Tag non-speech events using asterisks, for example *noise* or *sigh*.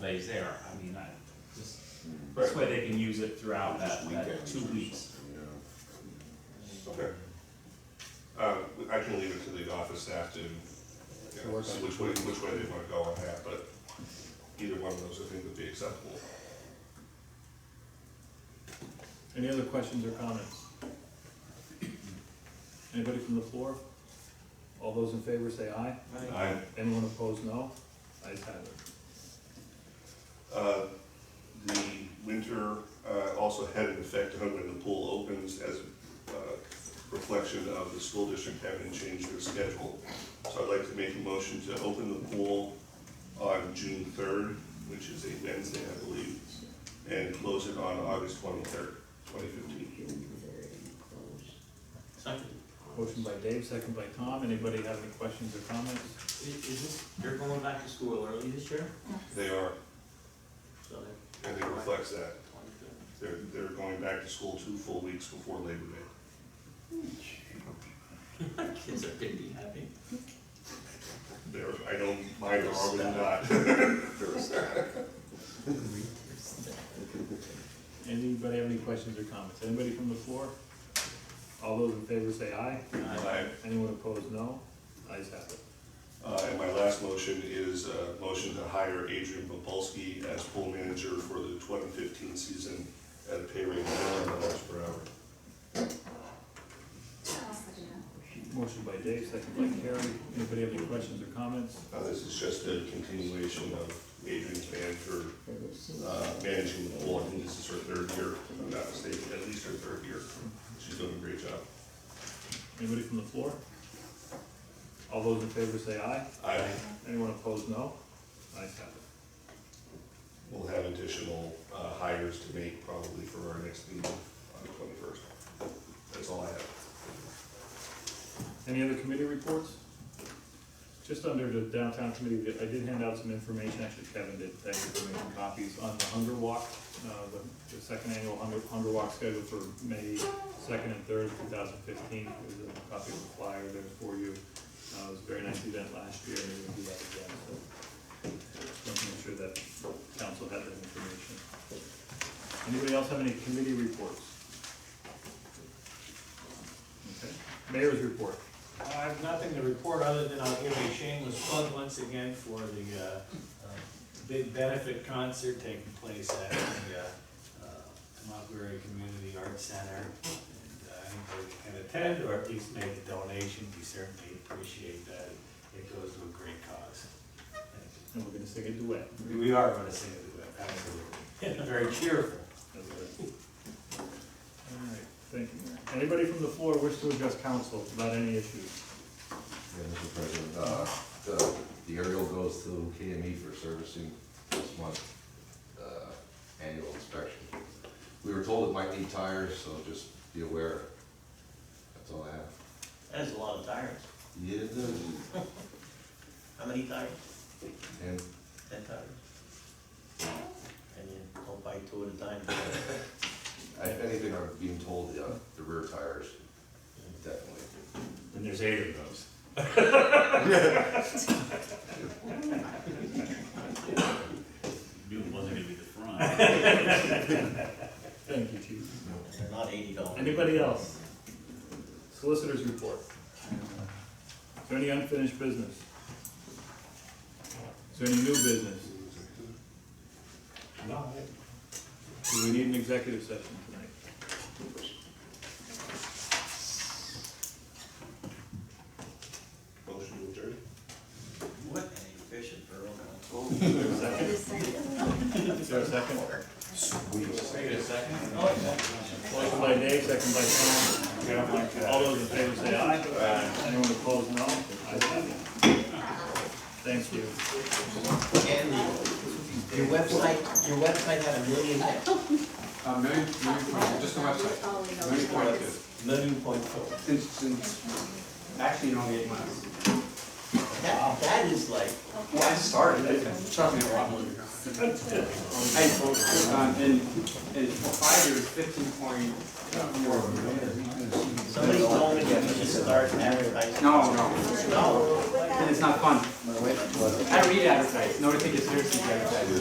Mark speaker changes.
Speaker 1: days there, I mean, I, just, this way they can use it throughout that, that two weeks.
Speaker 2: Okay. Um, I can leave it to the office staff to, you know, see which way, which way they wanna go on that, but either one of those I think would be acceptable.
Speaker 3: Any other questions or comments? Anybody from the floor? All those in favor say aye.
Speaker 2: I,
Speaker 3: Anyone opposed, no. Ayes have it.
Speaker 2: uh, the winter, uh, also had an effect on when the pool opens as, uh, reflection of the school district having changed their schedule. So I'd like to make a motion to open the pool on June third, which is a Wednesday, I believe, and close it on August twenty-third, twenty fifteen.
Speaker 4: Second.
Speaker 3: Motion by Dave, second by Tom. Anybody have any questions or comments?
Speaker 4: Is, is this, they're going back to school early this year,
Speaker 2: They are,
Speaker 4: so they're.
Speaker 2: and it reflects that.
Speaker 4: Twenty-fifth.
Speaker 2: They're, they're going back to school two full weeks before Labor Day.
Speaker 4: Kids are gonna be happy.
Speaker 2: They're, I don't mind the wrong or not. *laughs*
Speaker 3: Anybody have any questions or comments? Anybody from the floor? All those in favor say aye.
Speaker 2: I-
Speaker 3: Anyone opposed, no. Ayes have it.
Speaker 2: Uh, and my last motion is a motion to hire Adrian Popolski as pool manager for the twenty fifteen season at a pay rate of eleven dollars per hour.
Speaker 3: Motion by Dave, second by Carrie. Anybody have any questions or comments?
Speaker 2: Now, this is just a continuation of Adrian's ban for, uh, managing the pool. I think this is her third year, if I'm not mistaken, at least her third year. She's doing a great job.
Speaker 3: Anybody from the floor? All those in favor say aye.
Speaker 2: I
Speaker 3: Anyone opposed, no. Ayes have it.
Speaker 2: will have additional, uh, hires to make probably for our next meeting on the twenty-first. That's all I have.
Speaker 3: Any other committee reports? Just under the downtown committee, I did hand out some information, actually Kevin did, thank you for making copies, on the hunger walk, uh, the, the second annual hunger, hunger walk scheduled for May second and third, two thousand fifteen. There's a copy of the flyer there for you. Uh, it was a very nice event last year, and we'll do that again, so. Just making sure that council had that information. Anybody else have any committee reports? Okay, mayor's report.
Speaker 4: I have nothing to report other than I'll give a shameless plug once again for the, uh, uh, big benefit concert taking place at the, uh, uh, Montgomery Community Arts Center. And uh, anybody that can attend or at least make a donation, we certainly appreciate that. It goes to a great cause. Thank you.
Speaker 3: And we're gonna sing a duet.
Speaker 4: We are gonna sing it, absolutely. *laughs* Very cheerful.
Speaker 3: All right, thank you, Mayor. Anybody from the floor wish to address council about any issues?
Speaker 5: Yeah, Mr. President, uh, the, the aerial goes to KME for servicing this month, uh, annual inspection. We were told it might need tires, so just be aware. That's all I have.
Speaker 6: That is a lot of tires.
Speaker 5: Yeah, it does.
Speaker 6: How many tires?
Speaker 5: And
Speaker 6: Ten tires. And you don't buy two at a time.
Speaker 5: if anything, I'm being told, uh, the rear tires, definitely.
Speaker 1: And there's eight of those. Knew it wasn't gonna be the front.
Speaker 3: Thank you, chief.
Speaker 6: And they're not eighty dollars.
Speaker 3: Anybody else? Solicitors report. Is there any unfinished business? Is there any new business?
Speaker 4: No, I-
Speaker 3: Do we need an executive session tonight?
Speaker 2: Motion to adjourn?
Speaker 6: What an efficient borough council.
Speaker 3: Is there a second? Is there a second? Motion by Dave, second by Tom. All those in favor say aye. Anyone opposed, no. Ayes have it. Thank you.
Speaker 6: And your website, your website had a million,
Speaker 7: Uh, maybe, maybe, point- just a website, maybe point two,
Speaker 6: million point four.
Speaker 7: since, since, actually, you don't get much.
Speaker 6: *laughs* That, that is like,
Speaker 7: Well, I started, it took me a lot more. Hey, folks, um, in, in five years, fifteen point,
Speaker 6: somebody told me that we should start advertising.
Speaker 7: no, no,
Speaker 6: No,
Speaker 7: and it's not fun. I don't read advertising, nobody take it seriously, advertising.